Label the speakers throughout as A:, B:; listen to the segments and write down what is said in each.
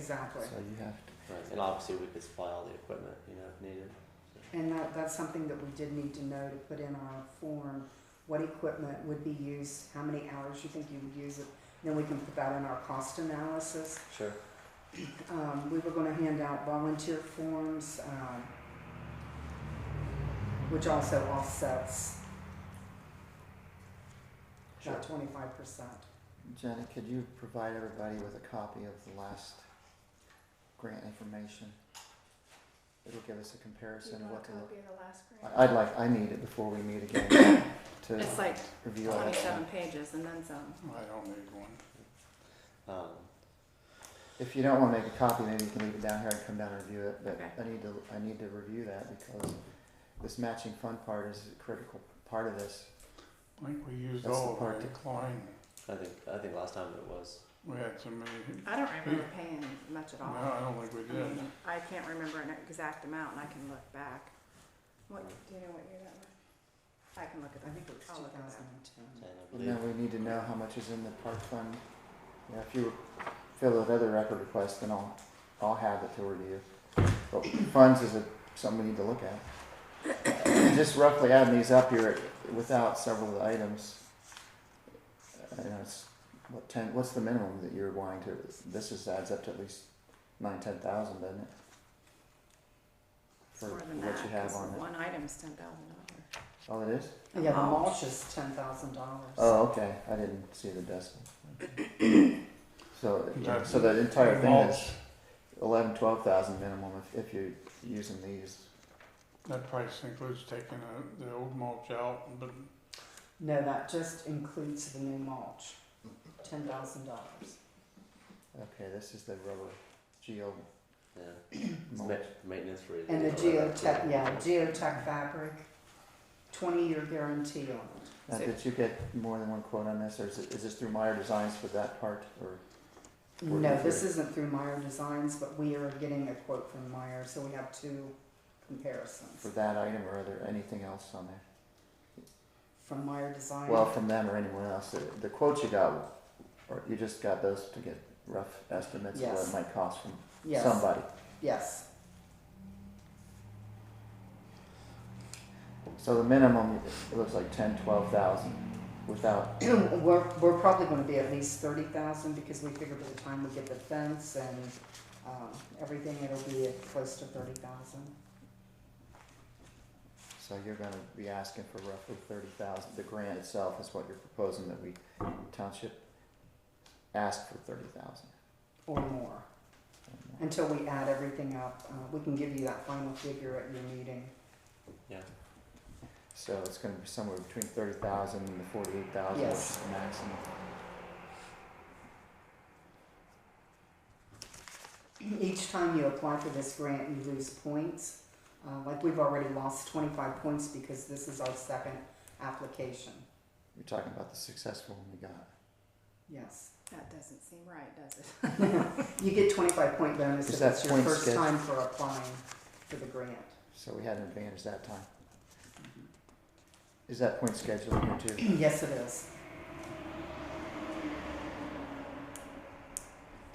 A: Exactly.
B: So you have to,
C: Right, and obviously we could supply all the equipment, you know, if needed.
A: And that, that's something that we did need to know to put in our form, what equipment would be used, how many hours you think you would use it. Then we can put that in our cost analysis.
C: Sure.
A: Um, we were gonna hand out volunteer forms, um, which also offsets
C: Sure.
A: that twenty-five percent.
B: Jenny, could you provide everybody with a copy of the last grant information? It'll give us a comparison of what to look.
D: of the last grant?
B: I- I'd like, I need it before we meet again to
D: It's like
B: review all that
D: twenty-seven
B: stuff.
D: pages and then some.
E: I don't need one.
C: Um,
B: If you don't wanna make a copy, maybe you can leave it down here and come down and review it, but
D: Okay.
B: I need to, I need to review that because this matching fund part is a critical part of this.
E: I think we used
B: That's the
E: all
B: part
E: of it,
B: that-
E: Klein.
C: I think, I think last time it was,
E: We had so many,
D: I don't remember paying much at
E: no,
D: all.
E: I don't think we
D: I
E: did.
D: mean, I can't remember an exact amount and I can look back. What, do you know what year that was? I can look at
A: I
D: that.
A: think it was
D: I'll
A: two
D: look at
A: thousand
D: that.
A: and
C: and
A: ten.
C: I
B: And then
C: believe,
B: we need to know how much is in the park fund. Yeah, if you fill out other record requests, then I'll, I'll have it to review. But funds is a, something we need to look at. Just roughly adding these up here, without several of the items. I know it's, what ten, what's the minimum that you're wanting to, this just adds up to at least nine, ten thousand, doesn't it?
D: It's
B: For
D: more than
B: what you
D: that,
B: have
D: cause
B: on it.
D: one item's ten thousand dollars.
B: Oh, it is?
A: Yeah, the mulch is ten thousand dollars.
B: Oh, okay, I didn't see the decimal. So,
E: Yeah.
B: so the entire thing
E: Mulch,
B: is eleven, twelve thousand minimum if, if you're using these.
E: That price includes taking uh, the old mulch out, but
A: No, that just includes the new mulch, ten thousand dollars.
B: Okay, this is the rubber geo
C: yeah, it's
B: mulch.
C: ma- maintenance for.
A: And the geotech, yeah,
C: Yeah. Um,
A: geotech fabric, twenty-year guarantee on it.
B: Now, did you get more than one quote on this, or is, it, is this through Meyer Designs for that part, or? Or
A: No,
B: is
A: this
B: it-
A: isn't through Meyer Designs, but we are getting a quote from Meyer, so we have two
B: For
A: comparisons.
B: that item, or are there anything else on there?
A: From Meyer Designs.
B: Well, from them or anyone else, the, the quotes you got, or you just got those to get rough estimates of what
A: Yes.
B: it might cost from
A: Yes,
B: somebody?
A: Yes,
B: So the minimum, it looks like ten, twelve thousand without,
A: we're, we're probably gonna be at least thirty thousand, because we figure by the time we get the fence and, um, everything, it'll be at close to thirty thousand.
B: so you're gonna be asking for roughly thirty thousand. The grant itself is what you're proposing that we, township, ask for thirty thousand.
A: or more. Until we add everything up, uh, we can give you that final figure at your meeting.
B: So it's gonna be somewhere between thirty thousand and the forty-eight thousand, which is
A: Yes.
B: the maximum.
A: Each time you apply for this grant, you lose points. Uh, like we've already lost twenty-five points because this is our second application.
B: You're talking about the successful one we got.
A: Yes.
D: That doesn't seem right, does it?
A: You get twenty-five point bonus
B: Is
A: if
B: that
A: it's your
B: point
A: first
B: sched-
A: time for applying for the grant.
B: So we had an advantage that time. Is that point scheduled here too?
A: Yes, it is.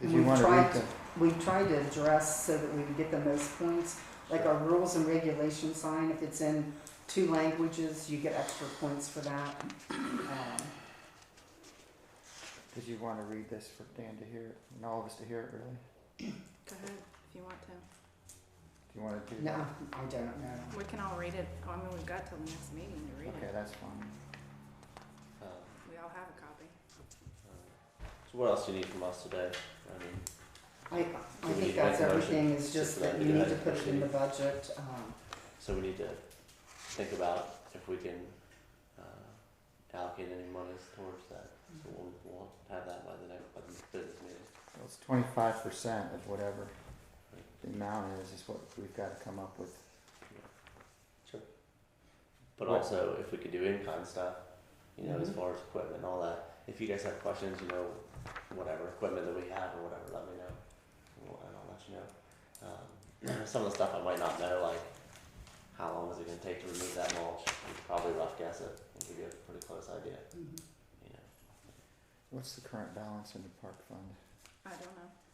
B: Did
A: We've
B: you wanna
A: tried
B: read the,
A: We tried to address so that we would get the most points, like our rules and regulations sign, if it's in two languages, you get extra points for that. Um,
B: did you wanna read this for Dan to hear, it and all of us to hear it really?
D: Go ahead, if you want to.
B: Do you wanna do
A: No,
B: that?
A: I don't know.
D: We can all read it. I mean, we've got till the next meeting to read
B: Okay,
D: it.
B: that's fine.
C: Um,
D: We all have a copy.
C: um, So what else do you need from us today? I mean,
A: I, I
C: We need
A: think
C: to make
A: that's
C: a motion
A: everything, it's
C: just
A: just
C: for
A: that
C: that
A: you need
C: guy
A: to put it in the
C: to
A: budget, um,
C: so we need to think about if we can, uh, allocate any monies towards that. So we'll, we'll have that by the next, by the business meeting.
B: Well, it's twenty-five percent of whatever the amount is, is what we've gotta come up with.
C: But
B: Right.
C: also, if we could do in-kind stuff, you know, as
A: Mhm.
C: far as equipment and all that. If you guys have questions, you know, whatever equipment that we have or whatever, let me know, Well, and I'll let you know. Um, some of the stuff I might not know, like how long is it going to take to remove that mulch? You could probably rough guess it and give you a pretty close idea. You know,
B: What's the current balance in the park fund?
D: I don't know.